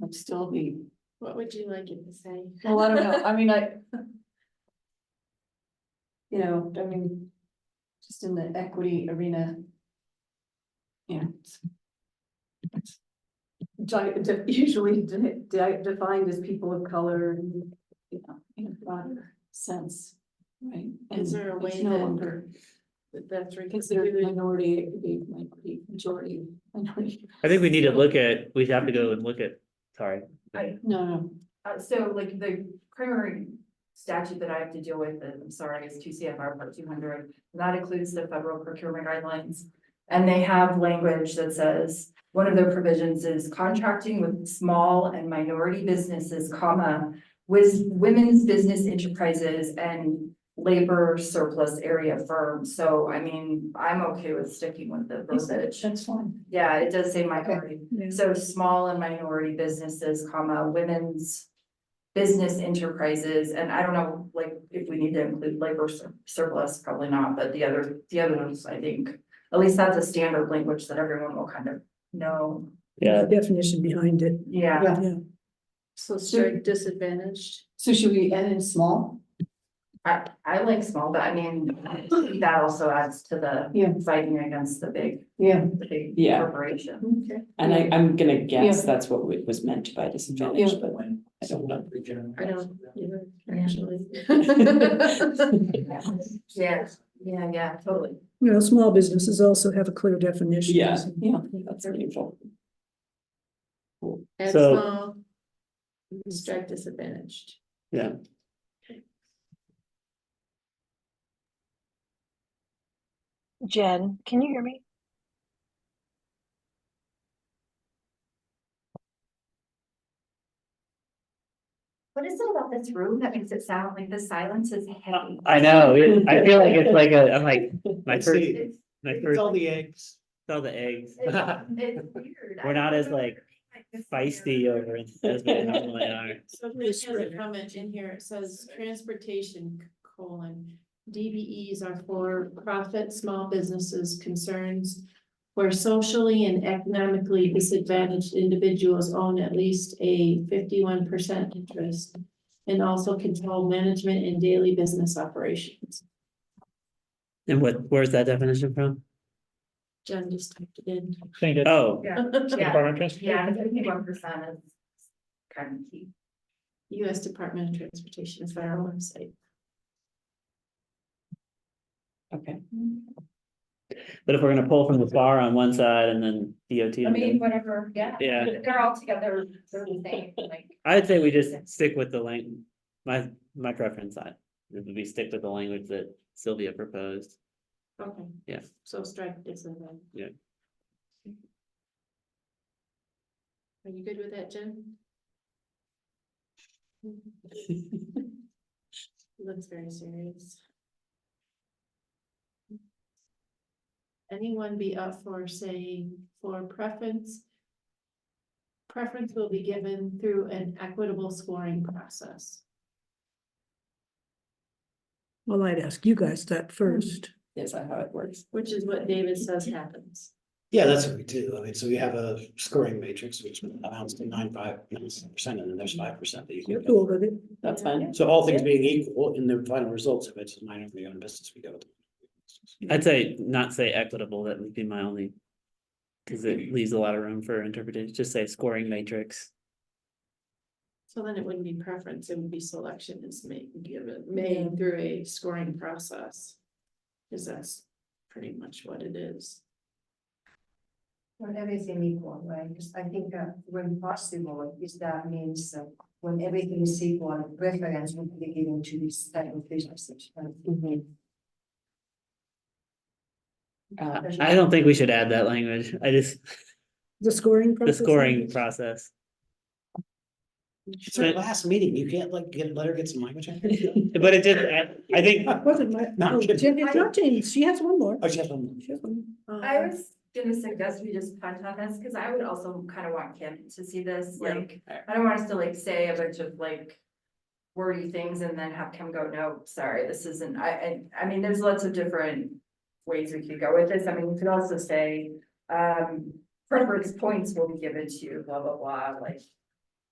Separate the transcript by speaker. Speaker 1: would still be,
Speaker 2: What would you like it to say?
Speaker 1: well, I don't know, I mean, I. You know, I mean, just in the equity arena. Yeah. it's- it's di- de- Usually de- de- defined as people of color and, you know, in a broader sense, right?
Speaker 2: Is
Speaker 1: And
Speaker 2: there
Speaker 1: it's
Speaker 2: a way
Speaker 1: no
Speaker 2: that-
Speaker 1: longer
Speaker 2: That That's re-
Speaker 1: Considered minority, it could be minority, majority, minority,
Speaker 3: I think we need to look at, we'd have to go and look at, sorry,
Speaker 1: no, no,
Speaker 4: Uh, so like the primary statute that I have to deal with, and I'm sorry, is two CFR part two hundred, that includes the federal procurement guidelines. And they have language that says, one of their provisions is contracting with small and minority businesses, comma, with women's business enterprises and labor surplus area firms. So I mean, I'm okay with sticking with the verbiage.
Speaker 1: that's fine.
Speaker 4: Yeah, it does say minority,
Speaker 1: Yeah.
Speaker 4: so small and minority businesses, comma, women's. Business enterprises, and I don't know, like, if we need to include labor sur- surplus, probably not, but the other, the other ones, I think. At least that's a standard language that everyone will kind of know,
Speaker 3: yeah,
Speaker 5: Definition behind it,
Speaker 4: yeah.
Speaker 5: yeah.
Speaker 2: So sorry, disadvantaged.
Speaker 1: So should we add in small?
Speaker 4: I, I like small, but I mean, that also adds to the.
Speaker 1: Yeah.
Speaker 4: Fighting against the big,
Speaker 1: Yeah.
Speaker 4: the big
Speaker 6: Yeah.
Speaker 4: corporation.
Speaker 2: Okay.
Speaker 6: And I, I'm gonna guess that's what it was meant by disadvantage, but I don't know.
Speaker 2: I don't, either,
Speaker 4: Yeah.
Speaker 2: actually.
Speaker 4: Yeah, yeah, yeah, totally.
Speaker 5: You know, small businesses also have a clear definition.
Speaker 6: Yeah, yeah, that's meaningful.
Speaker 2: Add
Speaker 3: So-
Speaker 2: small. Strike disadvantaged.
Speaker 3: yeah.
Speaker 7: Jen, can you hear me?
Speaker 4: What is it about this room that makes it sound like the silence is heavy?
Speaker 3: I know, it- I feel like it's like a, I'm like, my first,
Speaker 4: It's,
Speaker 3: my first,
Speaker 8: all the eggs.
Speaker 3: all the eggs.
Speaker 4: it's it's weird.
Speaker 3: We're not as, like, Feisty over in- as we normally are.
Speaker 2: Somebody has a
Speaker 5: Descriptor.
Speaker 2: comment in here, it says transportation colon, DBEs are for profit, small businesses concerns. Where socially and economically disadvantaged individuals own at least a fifty-one percent interest. And also control management and daily business operations.
Speaker 3: And what, where's that definition from?
Speaker 2: Jen just typed it in.
Speaker 3: Oh,
Speaker 4: Yeah, yeah, yeah, fifty-one percent is kind of key.
Speaker 2: US Department of Transportation is our website.
Speaker 6: Okay.
Speaker 3: but if we're gonna pull from the bar on one side and then DOT.
Speaker 4: I
Speaker 3: on the
Speaker 4: mean,
Speaker 3: other-
Speaker 4: whatever, yeah.
Speaker 3: Yeah.
Speaker 4: They're all together, they're the same, like.
Speaker 3: I'd say we just stick with the lang, my, my preference, I, we stick with the language that Sylvia proposed.
Speaker 2: Okay.
Speaker 3: Yeah.
Speaker 2: So strike disadvantage.
Speaker 3: Yeah.
Speaker 2: Are you good with that, Jen? Looks very serious. Anyone be up for saying for preference? Preference will be given through an equitable scoring process.
Speaker 5: Well, I'd ask you guys
Speaker 4: Mm-hmm.
Speaker 5: that first.
Speaker 6: Is that how it works?
Speaker 2: Which is what David says happens.
Speaker 8: Yeah, that's what we do. I mean, so we have a scoring matrix, which amounts to nine, five, nine percent, and then there's five percent that you
Speaker 5: You're
Speaker 8: can.
Speaker 5: cool
Speaker 8: get.
Speaker 5: with it.
Speaker 6: That's fine.
Speaker 8: So all things being equal, in the final results, if it's a minor for your own business, we go with.
Speaker 3: I'd say not say equitable, that would be my only. Cause it leaves a lot of room for interpretation, just say scoring matrix.
Speaker 2: So then it wouldn't be preference, it would be selection is made, given, made through a scoring process. Cause that's pretty much what it is.
Speaker 9: When everything equal, right, because I think uh, when possible, is that means uh, when everything is equal, preference would be given to this type of businesses. right?
Speaker 6: Uh,
Speaker 3: I don't think we should add that language. I just,
Speaker 5: The scoring.
Speaker 3: the
Speaker 5: process? Oh,
Speaker 3: scoring process.
Speaker 8: It's our last meeting. You can't like get, let her get some language. in here?
Speaker 3: But it just, I, I think,
Speaker 5: Wasn't my, Oh,
Speaker 8: No, I'm
Speaker 5: no,
Speaker 8: kidding.
Speaker 5: Jen, it's not Jane, she has one more.
Speaker 8: Oh, she has one.
Speaker 5: She has one. more.
Speaker 4: I
Speaker 2: Um,
Speaker 4: was gonna suggest we just punt on this, cause I would also kind of want Kim to see this,
Speaker 2: Yeah.
Speaker 4: like, I don't want us to like say a bunch of like. Wordy things and then have Kim go, no, sorry, this isn't, I, I, I mean, there's lots of different. Ways we could go with this, I mean, we could also say, um, preference points will be given to blah, blah, blah, like,